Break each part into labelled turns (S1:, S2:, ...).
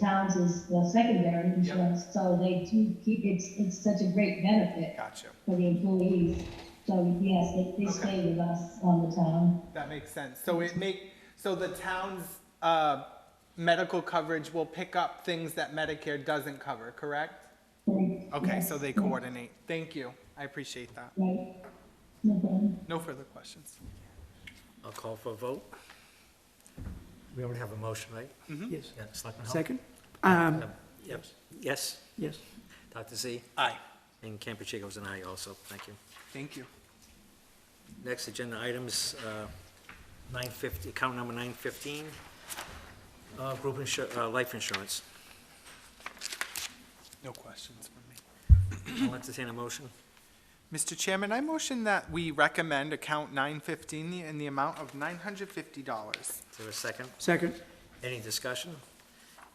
S1: towns is the secondary insurance, so they do keep, it's, it's such a great benefit
S2: Gotcha.
S1: for the employees. So yes, they, they stay with us on the town.
S2: That makes sense. So it make, so the town's, uh, medical coverage will pick up things that Medicare doesn't cover, correct?
S1: They-
S2: Okay,
S1: yes,
S2: so they coordinate. Thank you. I appreciate that.
S1: Right, no problem.
S2: No further questions.
S3: I'll call for a vote. We already have a motion, right?
S4: Yes.
S3: Yeah, Selectman Hull?
S4: Second? Um,
S3: Um, Yep, yes,
S4: yes.
S3: Dr. Z,
S2: Aye.
S3: and Campuchico's an aye also, thank you.
S2: Thank you.
S3: Next agenda items, uh, 950, account number 915, uh, group insur, uh, life insurance.
S2: No questions from me.
S3: I'll entertain a motion.
S2: Mr. Chairman, I motion that we recommend account nine fifteen in the amount of nine hundred fifty dollars.
S3: Is there a second?
S4: Second?
S3: Any discussion?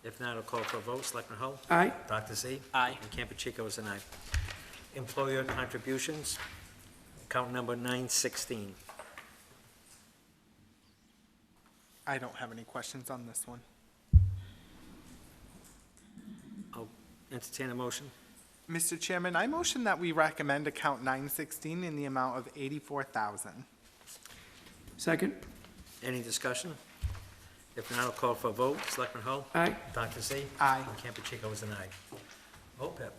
S3: If not, I'll call for a vote. Selectman Hull?
S4: Aye.
S3: Dr. Z?
S2: Aye.
S3: And Campuchico is an aye. Employer contributions, account number 916.
S2: I don't have any questions on this one.
S3: I'll entertain a motion.
S2: Mr. Chairman, I motion that we recommend account nine sixteen in the amount of eighty-four thousand.
S4: Second?
S3: Any discussion? If not, I'll call for a vote. Selectman Hull?
S4: Aye.
S3: Dr. Z?
S2: Aye.
S3: And Campuchico is an aye. OPEB,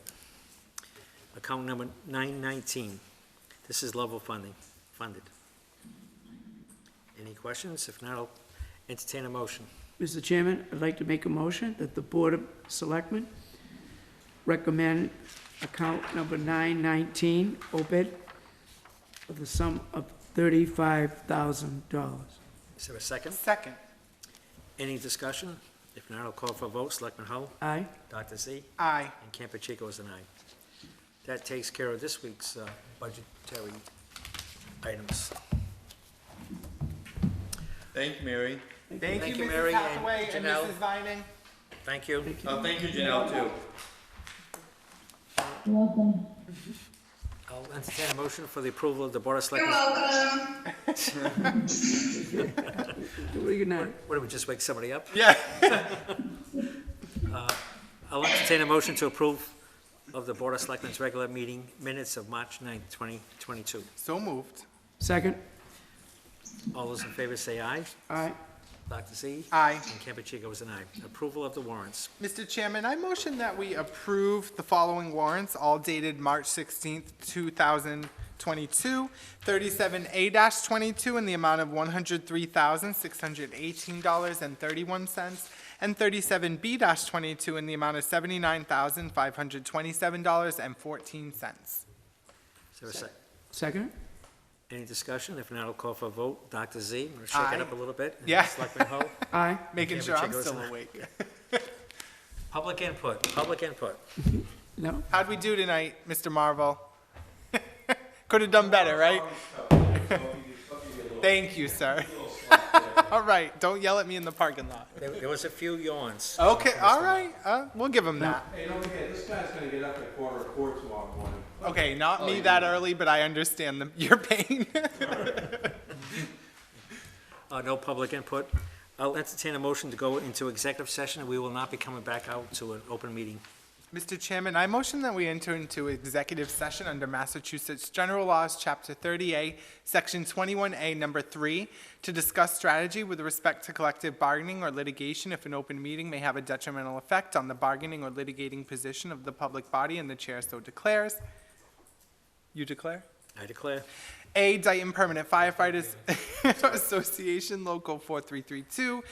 S3: account number 919. This is level funding, funded. Any questions? If not, I'll entertain a motion.
S4: Mr. Chairman, I'd like to make a motion that the Board of Selectmen recommend account number 919, OPED, of the sum of $35,000.
S3: Is there a second?
S2: Second.
S3: Any discussion? If not, I'll call for a vote. Selectman Hull?
S4: Aye?
S3: Dr. Z?
S2: Aye.
S3: And Campuchico is an aye. That takes care of this week's uh, budgetary items.
S5: Thank you, Mary.
S2: Thank you,
S3: Thank you,
S2: Mrs.
S3: Mary and
S2: Hathaway and
S3: Janelle.
S2: Mrs. Vining.
S3: Thank you.
S5: Oh, thank you, Janelle, too.
S1: You're Welcome.
S3: I'll entertain a motion for the approval of the Board of
S6: You're
S3: Selectmen's.
S6: welcome.
S4: Good night.
S3: What, did we just wake somebody up? Uh,
S2: Yeah.
S3: I'll entertain a motion to approve of the Board of Selectmen's regular meeting minutes of March 9th, 2022.
S2: So moved.
S4: Second?
S3: All those in favor say aye.
S4: Aye.
S3: Dr. Z?
S2: Aye.
S3: And Campuchico is an aye. Approval of the warrants.
S2: Mr. Chairman, I motion that we approve the following warrants, all dated March 16th, 2022. 37A-22 in the amount of $103,618.31, and 37B-22 in the amount of $79,527.14.
S3: Is there a sec-
S4: Second?
S3: Any discussion? If not, I'll call for a vote. Dr. Z, I'm to shake
S2: Aye.
S3: it up a little bit. And
S2: Yeah.
S3: Selectman Hull?
S4: Aye.
S2: Making
S3: Okay,
S2: sure
S3: but
S2: I'm
S3: check
S2: still
S3: those.
S2: awake.
S3: Public input, public input.
S4: No?
S2: How'd we do tonight, Mr. Marvel? Could have done better, right? Thank you, sir. All right, don't yell at me in the parking lot.
S3: There there was a few yawns.
S2: Okay, all right, uh, we'll give him that.
S7: Hey, don't forget, this guy's gonna get up at quarter to four tomorrow morning. Oh,
S2: Okay, not me that early, but I understand the, your pain.
S3: Uh, No public input. I'll entertain a motion to go into executive session. We will not be coming back out to an open meeting.
S2: Mr. Chairman, I motion that we enter into executive session under Massachusetts General Laws, Chapter 30A, Section 21A, Number 3, to discuss strategy with respect to collective bargaining or litigation if an open meeting may have a detrimental effect on the bargaining or litigating position of the public body and the chair so declares. You declare?
S3: I declare.
S2: A, Dayton Permanent Firefighters Association, Local 4332.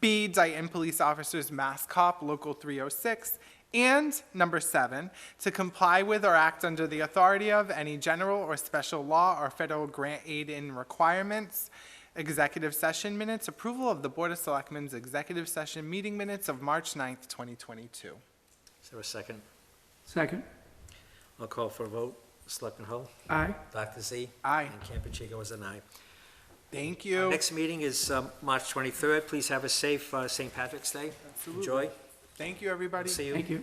S2: B, Dayton Police Officers Mass Cop, Local 306. And number seven, to comply with or act under the authority of any general or special law or federal grant aid in requirements. Executive session minutes, approval of the Board of Selectmen's executive session meeting minutes of March 9th, 2022.
S3: Is there a second?
S4: Second?
S3: I'll call for a vote. Selectman Hull?
S4: Aye.
S3: Dr. Z?
S2: Aye.
S3: And Campuchico is an aye.
S2: Thank
S3: Our
S2: you.
S3: Next meeting is um, March 23rd. Please have a safe uh, St. Patrick's Day. Enjoy.
S2: Thank you, everybody.
S3: See you.
S4: Thank you.